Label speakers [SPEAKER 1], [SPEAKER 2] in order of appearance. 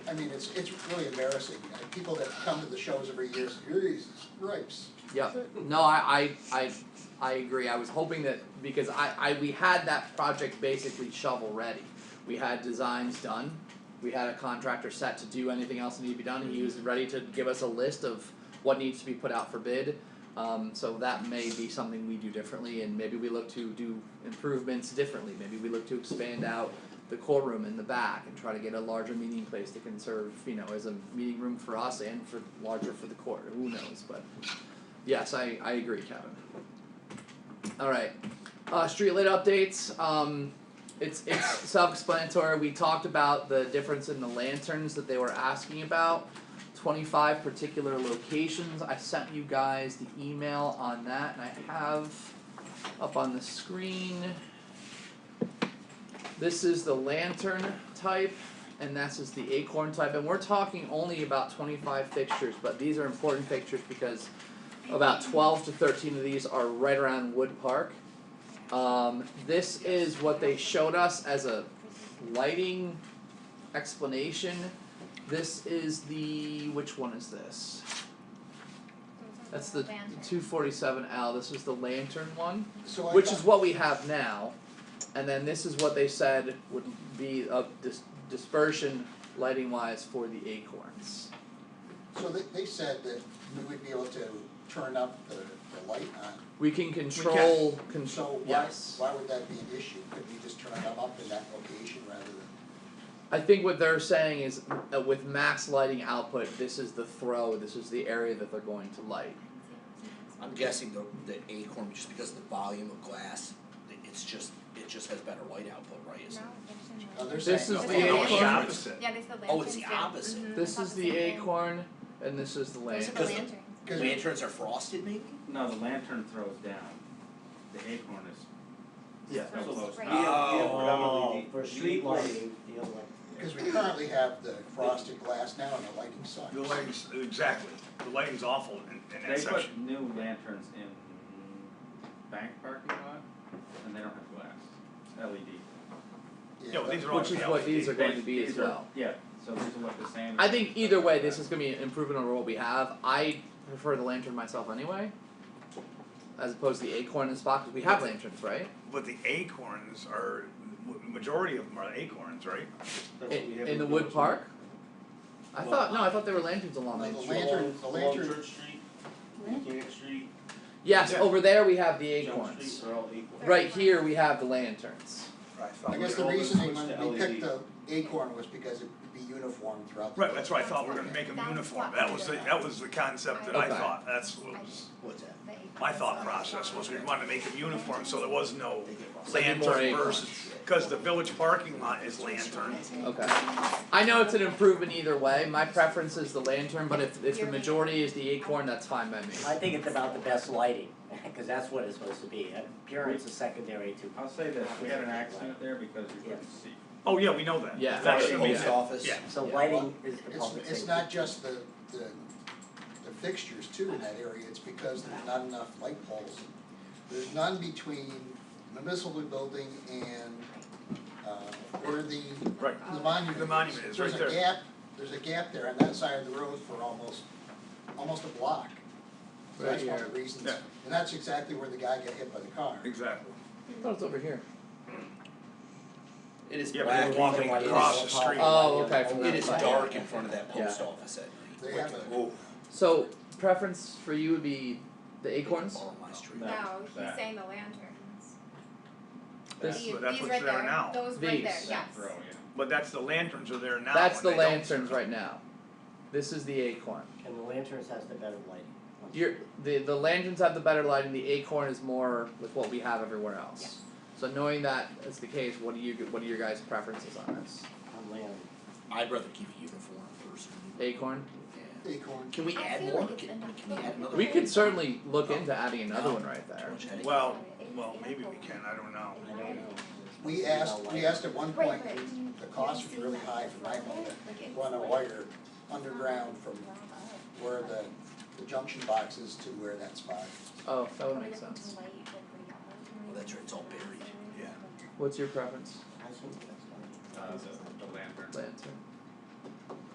[SPEAKER 1] I mean, it's, it's really embarrassing, Uh, people that come to the shows every year, say, Jesus Christ.
[SPEAKER 2] Yeah, no, I, I, I, I agree, I was hoping that, because I, I, we had that project basically shovel ready. We had designs done, we had a contractor set to do anything else that needed to be done, he was ready to give us a list of what needs to be put out for bid. Um, so that may be something we do differently, and maybe we look to do improvements differently, maybe we look to expand out the core room in the back and try to get a larger meeting place that can serve, you know, as a meeting room for us and for larger for the court, who knows, but. Yes, I, I agree, Kevin. Alright, uh, street lit updates, um, it's, it's self-explanatory, we talked about the difference in the lanterns that they were asking about. Twenty-five particular locations, I sent you guys the email on that, and I have up on the screen. This is the lantern type, and this is the acorn type, and we're talking only about twenty-five fixtures, but these are important fixtures because about 12 to 13 of these are right around Wood Park. Um, this is what they showed us as a lighting explanation. This is the which one is this? That's the 247L. This is the lantern one,
[SPEAKER 1] So I
[SPEAKER 2] which is
[SPEAKER 1] thought-
[SPEAKER 2] what we have now. And then this is what they said would be of dis- dispersion lighting wise for the acorns.
[SPEAKER 1] So they, they said that we would be able to turn up the, the light on,
[SPEAKER 2] We can control
[SPEAKER 1] so
[SPEAKER 2] control
[SPEAKER 1] why,
[SPEAKER 2] yes.
[SPEAKER 1] why would that be an issue, could we just turn them up in that location rather than?
[SPEAKER 2] I think what they're saying is uh, with max lighting output, this is the throw, this is the area that they're going to light.
[SPEAKER 3] I'm guessing the the acorn, just because of the volume of glass, it- it's just, it just has better light output, right? It's-
[SPEAKER 1] No, they're
[SPEAKER 2] This
[SPEAKER 1] saying
[SPEAKER 2] is
[SPEAKER 1] no.
[SPEAKER 2] the
[SPEAKER 4] No, it's the
[SPEAKER 2] acorn.
[SPEAKER 4] opposite.
[SPEAKER 5] Yeah, there's the lanterns.
[SPEAKER 3] Oh, it's the
[SPEAKER 5] down.
[SPEAKER 3] opposite.
[SPEAKER 5] Mhm,
[SPEAKER 2] This
[SPEAKER 5] it's not
[SPEAKER 2] is
[SPEAKER 5] the
[SPEAKER 2] the
[SPEAKER 5] same thing.
[SPEAKER 2] acorn, and this is the
[SPEAKER 5] Those are
[SPEAKER 2] lantern.
[SPEAKER 5] the
[SPEAKER 3] Because the-
[SPEAKER 5] lanterns.
[SPEAKER 1] Cause
[SPEAKER 3] Lanterns are frosted maybe?
[SPEAKER 4] No, the lantern throws down. The acorn is.
[SPEAKER 2] Yeah.
[SPEAKER 4] That's what I was-
[SPEAKER 5] Right.
[SPEAKER 6] We have, we have
[SPEAKER 7] Oh,
[SPEAKER 6] predominantly the-
[SPEAKER 7] for
[SPEAKER 6] the
[SPEAKER 7] street
[SPEAKER 6] lighting,
[SPEAKER 7] lighting, the other one.
[SPEAKER 1] Because we currently have the frosted glass now and the lighting sucks.
[SPEAKER 7] The lighting's,
[SPEAKER 6] Exactly, the lighting's awful in, in that
[SPEAKER 4] They
[SPEAKER 6] section.
[SPEAKER 4] put new lanterns in bank parking lot, and they don't have glass, E LED.
[SPEAKER 1] Yeah,
[SPEAKER 6] Yeah, well,
[SPEAKER 1] that-
[SPEAKER 6] these are all
[SPEAKER 2] Which is
[SPEAKER 6] LED.
[SPEAKER 2] what these are going
[SPEAKER 4] They-
[SPEAKER 2] to be as
[SPEAKER 4] these are-
[SPEAKER 2] well.
[SPEAKER 4] Yeah, so these will look the same.
[SPEAKER 2] I think either way, this is gonna be an improvement over what we have. I prefer the lantern myself anyway. As opposed to the acorn and spot, because we have lanterns, right?
[SPEAKER 6] But the acorns are, m- majority of them are acorns, right?
[SPEAKER 7] That's what we
[SPEAKER 2] In,
[SPEAKER 7] have
[SPEAKER 2] in the
[SPEAKER 7] with
[SPEAKER 2] wood
[SPEAKER 7] those.
[SPEAKER 2] park? I
[SPEAKER 7] Well-
[SPEAKER 2] thought, no, I thought there were lanterns along
[SPEAKER 1] No,
[SPEAKER 2] Main
[SPEAKER 1] the
[SPEAKER 8] Oh.
[SPEAKER 2] Street.
[SPEAKER 1] lantern- the
[SPEAKER 7] Along- along
[SPEAKER 1] lantern-
[SPEAKER 7] Church Street, Mechanic Street,
[SPEAKER 2] Yes,
[SPEAKER 6] Yeah.
[SPEAKER 2] over there we have the
[SPEAKER 7] Jump
[SPEAKER 2] acorns.
[SPEAKER 7] Street, are all equal.
[SPEAKER 2] Right here, we have the lanterns.
[SPEAKER 6] I
[SPEAKER 1] I guess the
[SPEAKER 7] All this
[SPEAKER 1] reasoning
[SPEAKER 7] switched
[SPEAKER 1] when we
[SPEAKER 7] to
[SPEAKER 1] picked the acorn was because it would be uniform throughout the.
[SPEAKER 6] E Right, that's why I thought we were
[SPEAKER 5] That's
[SPEAKER 6] gonna
[SPEAKER 5] what-
[SPEAKER 6] make them
[SPEAKER 5] that's
[SPEAKER 6] uniform,
[SPEAKER 5] what
[SPEAKER 6] that
[SPEAKER 5] we
[SPEAKER 6] was the,
[SPEAKER 5] did.
[SPEAKER 6] that was the concept that I
[SPEAKER 2] Okay.
[SPEAKER 6] thought, that's what was,
[SPEAKER 3] What's that?
[SPEAKER 5] The acorns.
[SPEAKER 6] my thought process was we wanted to make them uniform, so there was no
[SPEAKER 3] They get frosted.
[SPEAKER 2] Maybe
[SPEAKER 6] lantern
[SPEAKER 2] more
[SPEAKER 6] versus, cause the village parking lot is lantern.
[SPEAKER 2] Okay. I know it's an improvement either way. My preference is the lantern, but if, if the
[SPEAKER 5] Yearly.
[SPEAKER 2] majority is the acorn, that's fine by me.
[SPEAKER 8] I think it's about the best lighting, because that's what it's supposed to be, appearance is secondary to.
[SPEAKER 4] I'll say this, we had an accident there because we couldn't see.
[SPEAKER 6] Oh, yeah, we know that.
[SPEAKER 2] Yeah.
[SPEAKER 6] That
[SPEAKER 3] Front of
[SPEAKER 6] should
[SPEAKER 3] the
[SPEAKER 6] be
[SPEAKER 3] post
[SPEAKER 6] that.
[SPEAKER 3] office.
[SPEAKER 6] Yeah.
[SPEAKER 8] So
[SPEAKER 2] Yeah.
[SPEAKER 8] lighting is the
[SPEAKER 1] It's,
[SPEAKER 8] public
[SPEAKER 1] it's
[SPEAKER 8] safety.
[SPEAKER 1] not just the, the, the fixtures too in that area, it's because there's not enough light poles. There's none between the municipal building and, uh, where the,
[SPEAKER 6] Right.
[SPEAKER 1] the monument is.
[SPEAKER 6] The monument is right there.
[SPEAKER 1] There's a gap, there's a gap there on that side of the road for almost, almost a block. So that's one of the reasons,
[SPEAKER 6] Yeah.
[SPEAKER 1] and that's exactly where the guy got hit by the car.
[SPEAKER 6] Exactly.
[SPEAKER 2] I thought it's over here.
[SPEAKER 3] It is
[SPEAKER 6] Yeah, but
[SPEAKER 3] black,
[SPEAKER 6] you're walking
[SPEAKER 8] Lighting is
[SPEAKER 6] across
[SPEAKER 8] the
[SPEAKER 6] the street.
[SPEAKER 8] public
[SPEAKER 2] Oh,
[SPEAKER 8] lighting.
[SPEAKER 2] okay, from
[SPEAKER 3] it
[SPEAKER 2] that
[SPEAKER 3] is
[SPEAKER 2] side.
[SPEAKER 3] dark in front of that
[SPEAKER 2] Yeah.
[SPEAKER 3] post office at night.
[SPEAKER 1] They have
[SPEAKER 3] Wicked.
[SPEAKER 1] a-
[SPEAKER 3] Oh,
[SPEAKER 2] So preference for you would be the acorns?
[SPEAKER 3] all my street.
[SPEAKER 4] No.
[SPEAKER 5] No, he's
[SPEAKER 4] That.
[SPEAKER 5] saying the lanterns.
[SPEAKER 6] That's,
[SPEAKER 5] These-
[SPEAKER 6] but that's
[SPEAKER 5] these
[SPEAKER 6] what's
[SPEAKER 5] right
[SPEAKER 6] there now.
[SPEAKER 5] Those right there,
[SPEAKER 2] These.
[SPEAKER 5] yes.
[SPEAKER 4] That throw, yeah.
[SPEAKER 6] But that's the lanterns are there now.
[SPEAKER 2] That's
[SPEAKER 6] and
[SPEAKER 2] the
[SPEAKER 6] they don't-
[SPEAKER 2] lanterns right now. This is the acorn.
[SPEAKER 8] And the lanterns has the better lighting.
[SPEAKER 2] You're, the the lanterns have the better lighting. The acorn is more with what we have everywhere else.
[SPEAKER 5] Yes.
[SPEAKER 2] So knowing that is the case, what do you what are your guys' preferences on this?
[SPEAKER 8] On land.
[SPEAKER 3] I'd rather keep it uniform versus.
[SPEAKER 2] Acorn.
[SPEAKER 3] Yeah.
[SPEAKER 1] Acorn,
[SPEAKER 3] Can we
[SPEAKER 5] I
[SPEAKER 3] add
[SPEAKER 5] feel
[SPEAKER 3] more?
[SPEAKER 5] like it's
[SPEAKER 3] Can,
[SPEAKER 5] enough.
[SPEAKER 3] can we add another?
[SPEAKER 2] We
[SPEAKER 3] one?
[SPEAKER 2] could certainly look into adding another one right
[SPEAKER 3] Too
[SPEAKER 2] there.
[SPEAKER 3] much headache.
[SPEAKER 6] Well, well, maybe we can, I don't know.
[SPEAKER 8] I don't know.
[SPEAKER 1] we asked, we asked at one point,
[SPEAKER 5] Wait, but
[SPEAKER 1] the cost was really high for my home, run a wire underground from where the, the junction box is to where that spot.
[SPEAKER 2] Oh, that would make sense.
[SPEAKER 3] Well, that's right, it's all buried.
[SPEAKER 6] Yeah.
[SPEAKER 2] What's your preference?
[SPEAKER 8] I think that's fine.
[SPEAKER 4] Uh, the, the lantern.
[SPEAKER 2] Lantern.